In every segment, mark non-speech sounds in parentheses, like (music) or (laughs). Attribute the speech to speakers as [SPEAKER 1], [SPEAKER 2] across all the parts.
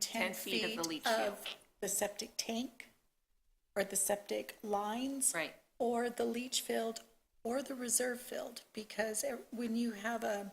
[SPEAKER 1] 10 feet of the leach field.
[SPEAKER 2] of the septic tank or the septic lines.
[SPEAKER 1] Right.
[SPEAKER 2] Or the leach field or the reserve field, because e- when you have a,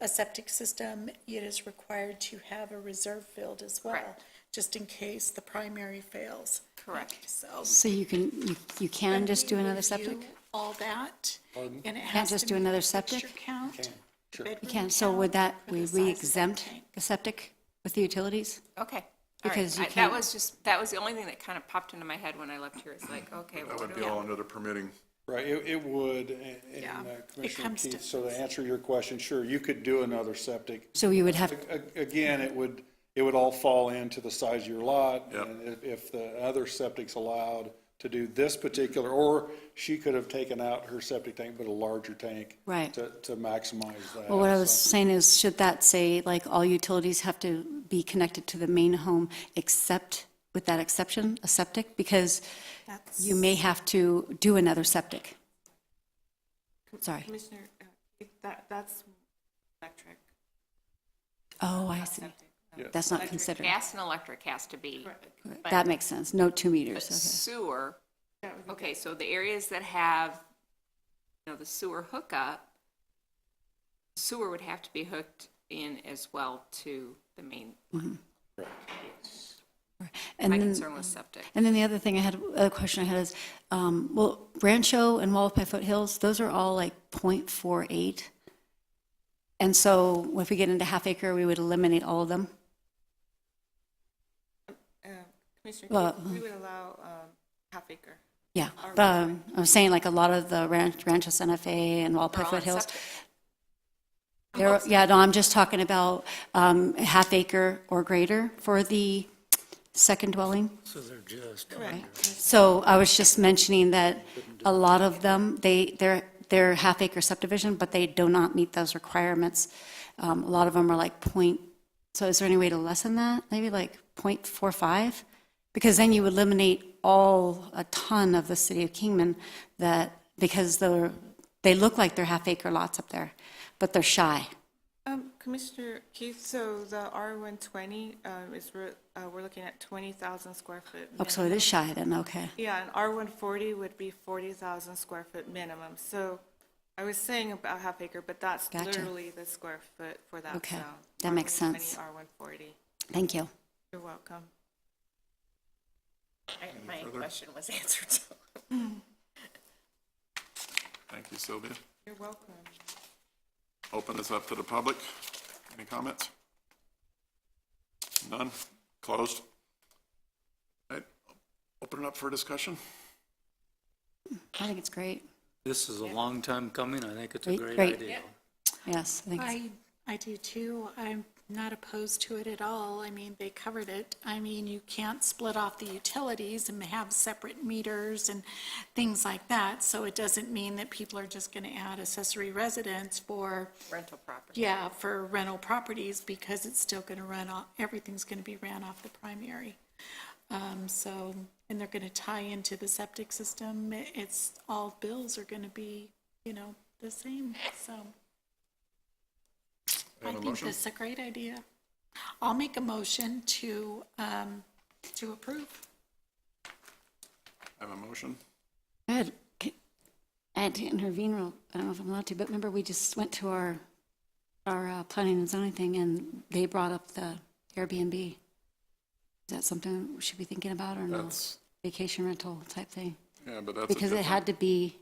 [SPEAKER 2] a septic system, it is required to have a reserve field as well,
[SPEAKER 1] Correct.
[SPEAKER 2] just in case the primary fails.
[SPEAKER 1] Correct.
[SPEAKER 2] So.
[SPEAKER 3] So you can, you, you can just do
[SPEAKER 2] we
[SPEAKER 3] another
[SPEAKER 2] review
[SPEAKER 3] septic?
[SPEAKER 2] All that, and it has
[SPEAKER 3] just
[SPEAKER 2] to
[SPEAKER 3] do
[SPEAKER 2] meet
[SPEAKER 3] another
[SPEAKER 2] the
[SPEAKER 3] septic?
[SPEAKER 2] fixture count, the
[SPEAKER 3] You
[SPEAKER 2] bedroom
[SPEAKER 3] can, so would that,
[SPEAKER 2] count, or the
[SPEAKER 3] would
[SPEAKER 2] size of
[SPEAKER 3] we
[SPEAKER 2] the
[SPEAKER 3] exempt
[SPEAKER 2] tank.
[SPEAKER 3] the septic with the utilities?
[SPEAKER 1] Okay. All right.
[SPEAKER 3] Because you
[SPEAKER 1] I- That
[SPEAKER 3] can't-
[SPEAKER 1] was just, that was the only thing that kind of popped into my head when I left here. It's like, okay, well,
[SPEAKER 4] That
[SPEAKER 1] what
[SPEAKER 4] would
[SPEAKER 1] do we?
[SPEAKER 4] be all under the permitting.
[SPEAKER 5] Right, it, it would, and-
[SPEAKER 2] Yeah,
[SPEAKER 5] and uh,
[SPEAKER 2] it
[SPEAKER 5] Commissioner
[SPEAKER 2] comes to-
[SPEAKER 5] Keith, so to answer your question, sure, you could do another septic.
[SPEAKER 3] So you would have,
[SPEAKER 5] A- a- Again, it would, it would all fall into the size of your lot.
[SPEAKER 4] Yep.
[SPEAKER 5] And if, if the other septic's allowed to do this particular, or she could have taken out her septic tank, but a larger tank.
[SPEAKER 3] Right.
[SPEAKER 5] To, to maximize that.
[SPEAKER 3] well, what I
[SPEAKER 5] so.
[SPEAKER 3] was saying is, should that say, like, all utilities have to be connected to the main home except, with that exception, a septic? Because
[SPEAKER 2] That's-
[SPEAKER 3] you may have to do another septic. Sorry.
[SPEAKER 6] Commissioner, uh, if that, that's electric.
[SPEAKER 3] Oh, I see.
[SPEAKER 6] septic.
[SPEAKER 3] That's not considered.
[SPEAKER 1] Gas and electric has to be
[SPEAKER 3] That makes sense. No two meters,
[SPEAKER 1] sewer.
[SPEAKER 6] That would be
[SPEAKER 1] Okay, so the areas that have, you know, the sewer hookup, sewer would have to be hooked in as well to the main,
[SPEAKER 3] okay. And
[SPEAKER 1] my
[SPEAKER 3] then-
[SPEAKER 1] concern was septic.
[SPEAKER 3] And then the other thing I had, other question I had is, um, well, Rancho and Wallapai Foothills, those are all like 0.48. And so if we get into half acre, we would eliminate all of them.
[SPEAKER 6] Uh, Commissioner,
[SPEAKER 3] Well, uh-huh.
[SPEAKER 6] Keith, we would allow um, half acre.
[SPEAKER 3] Yeah, but um, I was saying like a lot of the Ranch, Rancho Santa Fe and
[SPEAKER 1] They're
[SPEAKER 3] Wallapai
[SPEAKER 1] all on
[SPEAKER 3] Foothills.
[SPEAKER 1] septic.
[SPEAKER 3] There, yeah, no, I'm just talking about, um, half acre or greater for the second dwelling.
[SPEAKER 7] So they're just,
[SPEAKER 3] So I was just mentioning that a lot of them, they, they're, they're half acre subdivision, but they do not meet those requirements. Um, a lot of them are like point, so is there any way to lessen that? Maybe like point four five? Because then you eliminate all, a ton of the city of Kingman that, because they're, they look like they're half acre lots up there, but they're shy.
[SPEAKER 6] Um, Commissioner Keith, so the R120 um, is, we're, uh, we're looking at 20,000 square foot.
[SPEAKER 3] Oh, so it is shy then, okay.
[SPEAKER 6] Yeah, and R140 would be 40,000 square foot minimum. So I was saying about half acre, but that's
[SPEAKER 3] Gotcha.
[SPEAKER 6] literally the square foot for that
[SPEAKER 3] Okay,
[SPEAKER 6] zone.
[SPEAKER 3] that makes
[SPEAKER 6] R120,
[SPEAKER 3] sense.
[SPEAKER 6] R140.
[SPEAKER 3] Thank you.
[SPEAKER 6] You're welcome.
[SPEAKER 1] I- My question was (laughs) answered, so.
[SPEAKER 4] Thank you, Sylvia.
[SPEAKER 6] You're welcome.
[SPEAKER 4] Open this up to the public. Any comments? None? Closed? All right, open it up for discussion.
[SPEAKER 3] I think it's great.
[SPEAKER 7] this is a long time coming. I think it's a
[SPEAKER 3] Great,
[SPEAKER 7] great
[SPEAKER 3] great.
[SPEAKER 7] idea.
[SPEAKER 3] Yes, I think it's
[SPEAKER 2] I, I do too. I'm not opposed to it at all. I mean, they covered it. I mean, you can't split off the utilities and have separate meters and things like that. So it doesn't mean that people are just going to add accessory residence for,
[SPEAKER 1] Rental property.
[SPEAKER 2] yeah, for rental properties because it's still going to run off, everything's going to be ran off the primary. Um, so, and they're going to tie into the septic system. It's, all bills are going to be, you know, the same, so. I
[SPEAKER 4] Have a
[SPEAKER 2] think
[SPEAKER 4] motion?
[SPEAKER 2] that's a great idea. I'll make a motion to, um, to approve.
[SPEAKER 4] Have a motion?
[SPEAKER 3] I had, I had to intervene real, I don't know if I'm allowed to, but remember, we just went to our, our uh, planning and zoning thing, and they brought up the Airbnb. Is that something we should be thinking about, or no?
[SPEAKER 4] That's,
[SPEAKER 3] Vacation rental type thing?
[SPEAKER 4] yeah, but that's a
[SPEAKER 3] Because it
[SPEAKER 4] different,
[SPEAKER 3] had to be,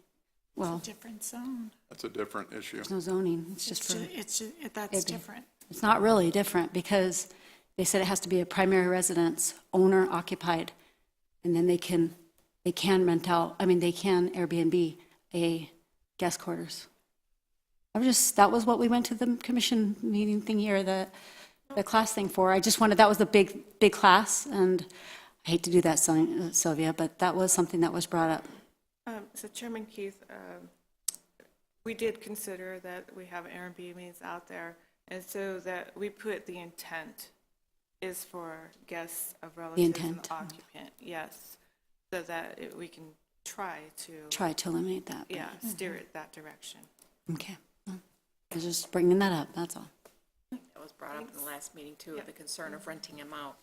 [SPEAKER 3] well,
[SPEAKER 2] Different zone.
[SPEAKER 4] that's a different issue.
[SPEAKER 3] there's no zoning, it's just
[SPEAKER 2] It's,
[SPEAKER 3] for,
[SPEAKER 2] ju- it's, ju- it- that's
[SPEAKER 3] Airbnb.
[SPEAKER 2] different.
[SPEAKER 3] it's not really different, because they said it has to be a primary residence, owner occupied, and then they can, they can rent out, I mean, they can Airbnb a guest quarters. I'm just, that was what we went to the commission meeting thing here, the, the class thing for. I just wanted, that was the big, big class, and I hate to do that, Syl- Sylvia, but that was something that was brought up.
[SPEAKER 6] Um, So Chairman Keith, um, we did consider that we have Airbnbs out there, and so that we put the intent is for guests of relatives and
[SPEAKER 3] intent.
[SPEAKER 6] occupant, yes, so that it- we can try to,
[SPEAKER 3] Try Mm-hmm. to eliminate that. but-
[SPEAKER 6] yeah, steer it that direction.
[SPEAKER 3] Okay. Well, I was just bringing that up, that's all.
[SPEAKER 1] That was brought up in the last meeting too, the concern of renting them out.